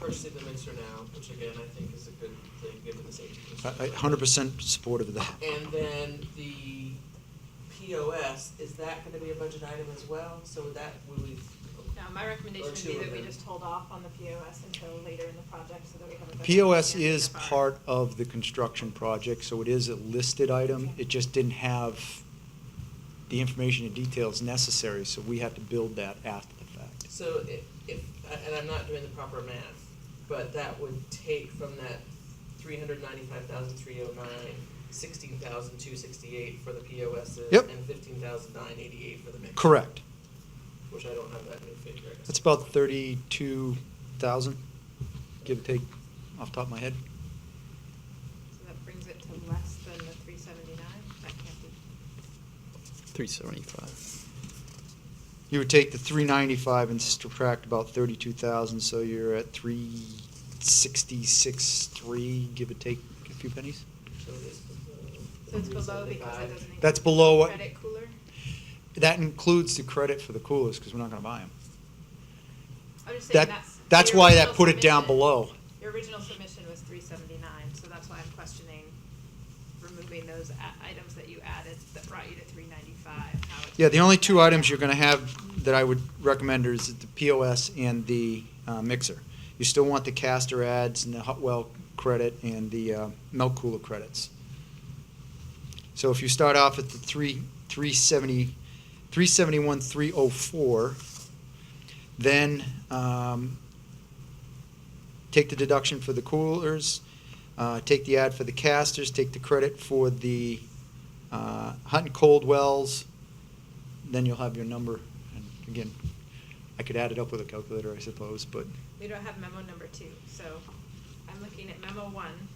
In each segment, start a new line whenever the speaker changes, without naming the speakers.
purchasing the mincer now, which again, I think is a good thing, given the safety concerns.
I, I hundred percent supportive of that.
And then the POS, is that gonna be a budget item as well? So would that, would we,
No, my recommendation
Or
would
two
be
of
that we
them.
just hold off on the POS until later in the project so that we have a better.
POS
understanding
is
of our-
part of the construction project, so it is a listed item. It just didn't have the information and details necessary, so we have to build that after the fact.
so if, if, and I'm not doing the proper math, but that would take from that three hundred ninety-five thousand three oh nine, sixteen thousand two sixty-eight for the POSs,
Yep.
and fifteen thousand nine eighty-eight for the mixer.
Correct.
Which I don't have that new figure. I guess.
That's about thirty-two thousand, give or take, off the top of my head.
So that brings it to less than the three seventy-nine, that can't be.
Three seventy-five.
You would take the three ninety-five and subtract about thirty-two thousand, so you're at three sixty-six, three, give or take a few pennies.
So it is below.
So it's below because it doesn't.
That's
include
below what-
Credit cooler.
That includes the credit for the coolers, because we're not gonna buy them.
I'm just saying
That,
that's.
that's
your
why that
original
put it down
submission-
below.
Your original submission was three seventy-nine, so that's why I'm questioning removing those a- items that you added that brought you to three ninety-five.
Yeah, the only two items you're gonna have that I would recommend is the POS and the uh, mixer. You still want the caster ads and the hot well credit and the uh, milk cooler credits. So if you start off at the three, three seventy, three seventy-one, three oh four, then, um, take the deduction for the coolers, uh, take the ad for the casters, take the credit for the, uh, hot and cold wells, then you'll have your number. And again, I could add it up with a calculator, I suppose, but
We don't have memo number two, so I'm looking at memo one,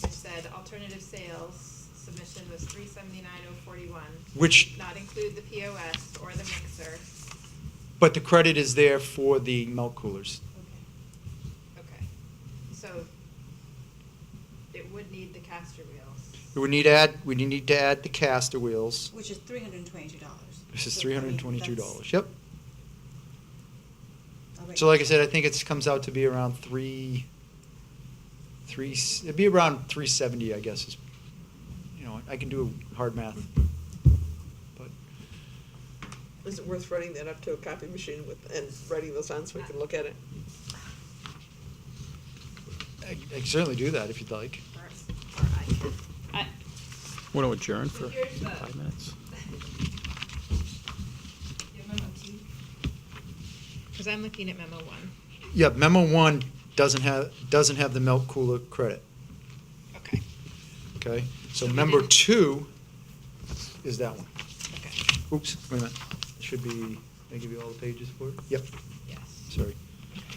which said alternative sales submission was three seventy-nine oh forty-one.
Which-
Not include the POS or the mixer.
but the credit is there for the milk coolers.
Okay. Okay, so it would need the caster wheels.
We need to add, we need to add the caster wheels.
Which is three hundred and twenty-two dollars.
This is three hundred and twenty-two dollars. Yep. So like I said, I think it comes out to be around three, three. s- It'd be around three seventy, I guess. Is you know, I can do hard math, but
Is it worth running that up to a copy machine with, and writing those on so we can look at it?
I, I can certainly do that if you'd like.
Or, or I can, I,
Want to adjourn
So
for
here's the-
five minutes?
you have memo two? Cause I'm looking at memo one.
Yeah, memo one doesn't have doesn't have the milk cooler credit.
Okay.
Okay, so
So we
member
didn't-
two is that one.
Okay,
Oops, wait a minute. Should be, I give you all the pages for it? Yep,
yes.
sorry.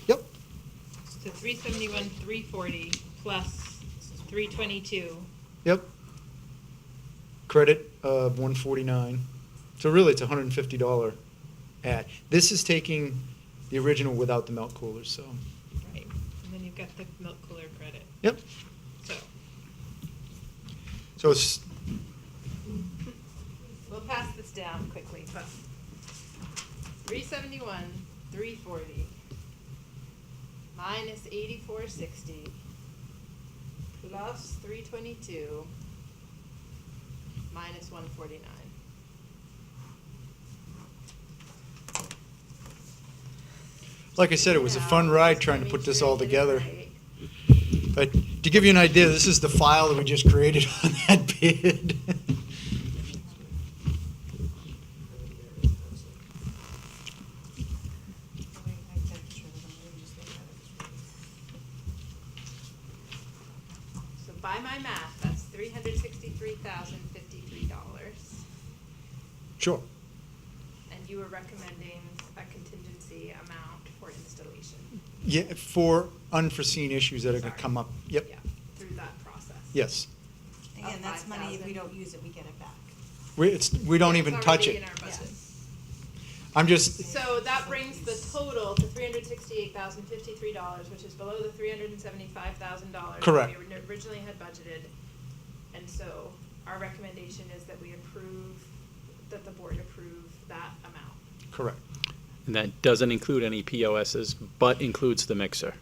Yep,
So three seventy-one, three forty, plus three twenty-two,
yep. Credit of one forty-nine. So really, it's a hundred and fifty dollar ad. This is taking the original without the milk coolers, so,
right, and then you've got the milk cooler credit,
yep.
so.
So it's,
We'll pass this down quickly, but three seventy-one, three forty, minus eighty-four sixty, plus three twenty-two, minus one forty-nine.
like I said, it was a fun ride trying to put this all together. But uh, to give you an idea, this is the file that we just created on that bid.
So by my math, that's three hundred sixty-three thousand fifty-three dollars,
Sure.
and you were recommending a contingency amount for installation.
Yeah, for unforeseen issues that are gonna
Sorry.
come up. Yep,
Yeah, Through that process.
yes.
Again, that's money, if we
5,000.
don't use it, we get it back.
We, it's, we don't
It's
even touch
already
it.
in our budget.
I'm just,
So that brings the total to three hundred sixty-eight thousand fifty-three dollars, which is below the three hundred and seventy-five thousand dollars
Correct.
we originally had budgeted. And so our recommendation is that we approve, that the board approve that amount.
correct.
And that doesn't include any POSs, but includes the mixer.